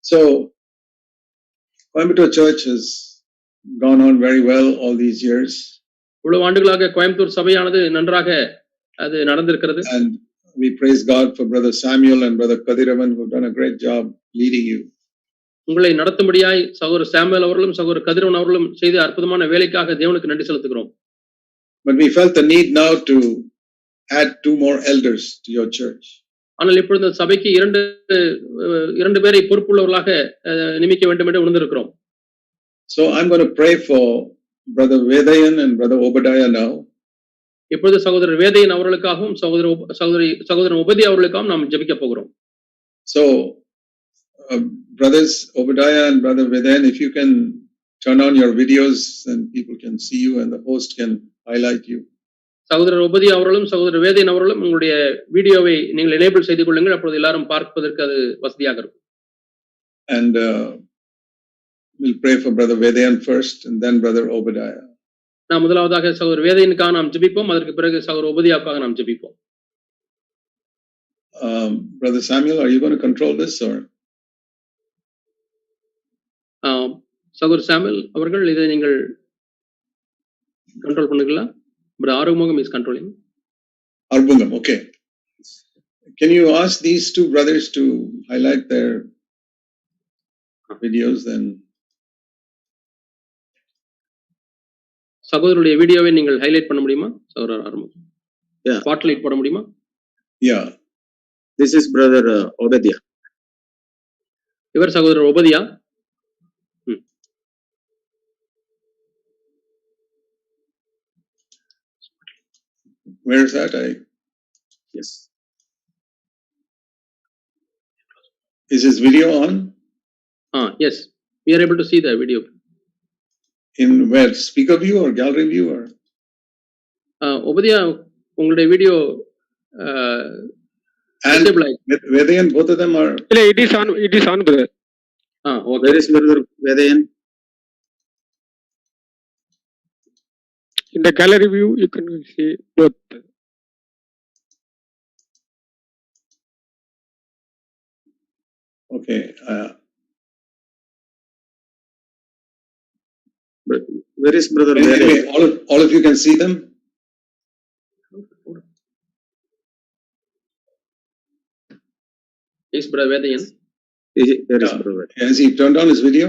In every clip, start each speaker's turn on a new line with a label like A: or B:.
A: So Coimbatore Church has gone on very well all these years,
B: இவ்வளவு ஆண்டுகளாக கோயம்புத்தூர் சபையானது நன்றாக அது நடந்திருக்கிறது
A: and we praise God for Brother Samuel and Brother Kadiravan who've done a great job leading you.
B: உங்களை நடத்தும்படியாய் சகோதரர் Samuel அவர்களும் சகோதரர் கதிரவன் அவர்களும் செய்த அற்புதமான வேலைக்காக தேவனுக்கு நன்றி செலுத்துகிறோம்
A: But we felt the need now to add two more elders to your church.
B: ஆனால் இப்பொழுது இந்த சபைக்கு இரண்டு அஹ், இரண்டு பேரை பொறுப்புள்ளவர்களாக அஹ், நியமிக்க வேண்டும் என்று உணர்ந்திருக்கிறோம்
A: So I'm going to pray for Brother Vedayan and Brother Obadiah now.
B: இப்பொழுது சகோதரர் வேதையன் அவர்களுக்காகவும் சகோதர உப- சகோதரி சகோதரன் உபதி அவர்களுக்காகவும் நாம் ஜெபிக்க போகிறோம்
A: So, uh, brothers Obadiah and brother Vedan, if you can turn on your videos and people can see you and the host can highlight you.
B: சகோதரர் உபதி அவர்களும் சகோதரர் வேதையன் அவர்களும் உங்களுடைய வீடியோவை நீங்கள் எனேபிள் செய்து கொள்ளுங்கள் அப்பொழுது எல்லாரும் பார்ப்பதற்கு அது வசதியாக இருக்கும்
A: And uh, we'll pray for brother Vedan first and then brother Obadiah.
B: நாம் முதலாவதாக சகோதரர் வேதையனுக்காக நாம் ஜெபிப்போம் அதற்கு பிறகு சகோதரர் உபதியாவுக்காக நாம் ஜெபிப்போம்
A: Um, brother Samuel, are you going to control this or?
B: ஆம், சகோதரர் சாமுவேல் அவர்கள் இதை நீங்கள் கண்ட்ரோல் பண்ணுங்களா பட் ஆரோக்கியமாக is controlling
A: Arbungam, okay. Can you ask these two brothers to highlight their videos then?
B: சகோதரருடைய வீடியோவை நீங்கள் ஹைலைட் பண்ண முடியுமா சகோதரர் ஆரம்பம்
C: Yeah.
B: ஸ்பாட்லைட் போட முடியுமா
A: Yeah.
C: This is brother uh, Obadiah.
B: இவர் சகோதரர் உபதியா ம்.
A: Where is that? I
C: Yes.
A: is his video on
B: ah yes we are able to see the video
A: in where speaker view or gallery view or?
B: ஆ, உபதியா உங்களுடைய video
A: And Vedayan, both of them are
D: இல்ல it is on it is on brother
B: ஆ okay
C: Where is brother Vedayan?
D: இந்த gallery view you can see both
A: okay. Uh,
C: Where is brother Vedayan?
A: anyway, all of all of you can see them.
B: Is brother Vedayan
C: Is it- Where is
A: Yeah.
C: brother? Vedayan?
A: Has he turned on his video?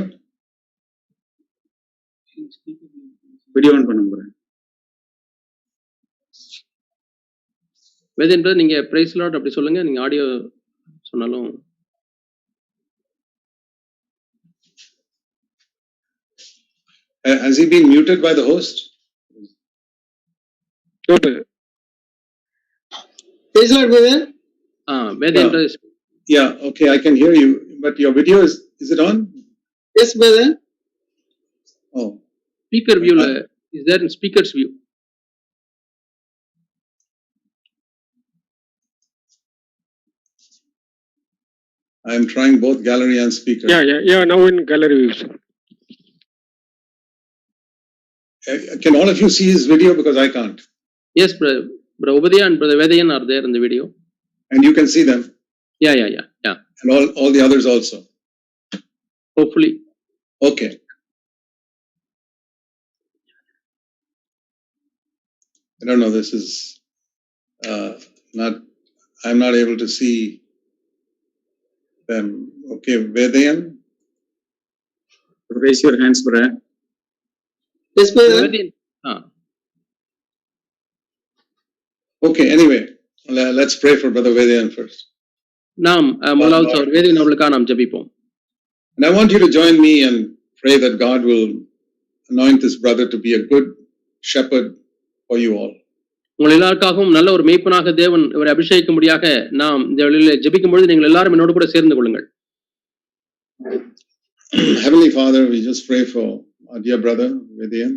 C: Video on பண்ணுங்க brother.
B: Vedayan brother நீங்க price Lord அப்படி சொல்லுங்க நீங்க audio சொன்னாலும்
A: Uh, has he been muted by the host?
D: Not
C: Is Lord Vedayan?
B: Ah Vedayan
A: Yeah.
B: Brother
A: Yeah. Okay, I can hear you, but your video is is it on?
C: Yes, brother.
A: Oh,
B: speaker வியூல is there in speakers view
A: I am trying both gallery and speaker.
D: Yeah yeah yeah now in gallery views
A: Uh, can all of you see his video because I can't,
B: yes brother Upadhya and brother Vedayan are there இந்த video
A: and you can see them
B: yeah yeah yeah yeah
A: and all all the others also.
B: Hopefully
A: Okay. I don't know, this is, uh, not, I'm not able to see them. Okay, Vedayan,
C: Raise your hands, brother.
E: Yes, brother.
B: Vedayan ஆ
A: okay, anyway, le- let's pray for brother Vedayan first.
B: நாம் அஹ், முதலாவது அவர் வேதையன் அவர்களுக்காக நாம் ஜெபிப்போம்
A: And I want you to join me and pray that God will anoint this brother to be a good shepherd for you all.
B: உங்கள் எல்லாருக்காகவும் நல்ல ஒரு மேய்ப்பனாக தேவன் இவரை அபிஷேகிக்கும்படியாக நாம் இந்த வழியில ஜெபிக்கும் பொழுது நீங்கள் எல்லாரும் என்னோடு கூட சேர்ந்து கொள்ளுங்கள்
A: Heavenly Father, we just pray for our dear brother Vedayan.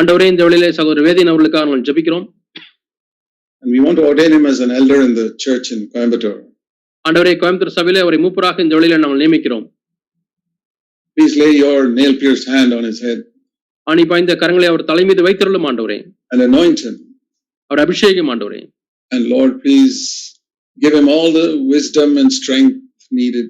B: ஆண்டவரே இந்த வழியிலே சகோதரர் வேதையன் அவர்களுக்காக நாங்கள் ஜெபிக்கிறோம்
A: And we want to ordain him as an elder in the church in Coimbatore.
B: ஆண்டவரே கோயம்புத்தூர் சபையிலே அவரை மூப்பராக இந்த வழியில நாங்கள் நியமிக்கிறோம்
A: Please lay your nail pierced hand on his head
B: ஆணி பாய்ந்த கரங்களை அவர் தலைமீது வைத்திருளும் ஆண்டவரே
A: and anoint him.
B: அவர் அபிஷேகம் ஆண்டவரே
A: And Lord, please give him all the wisdom and strength needed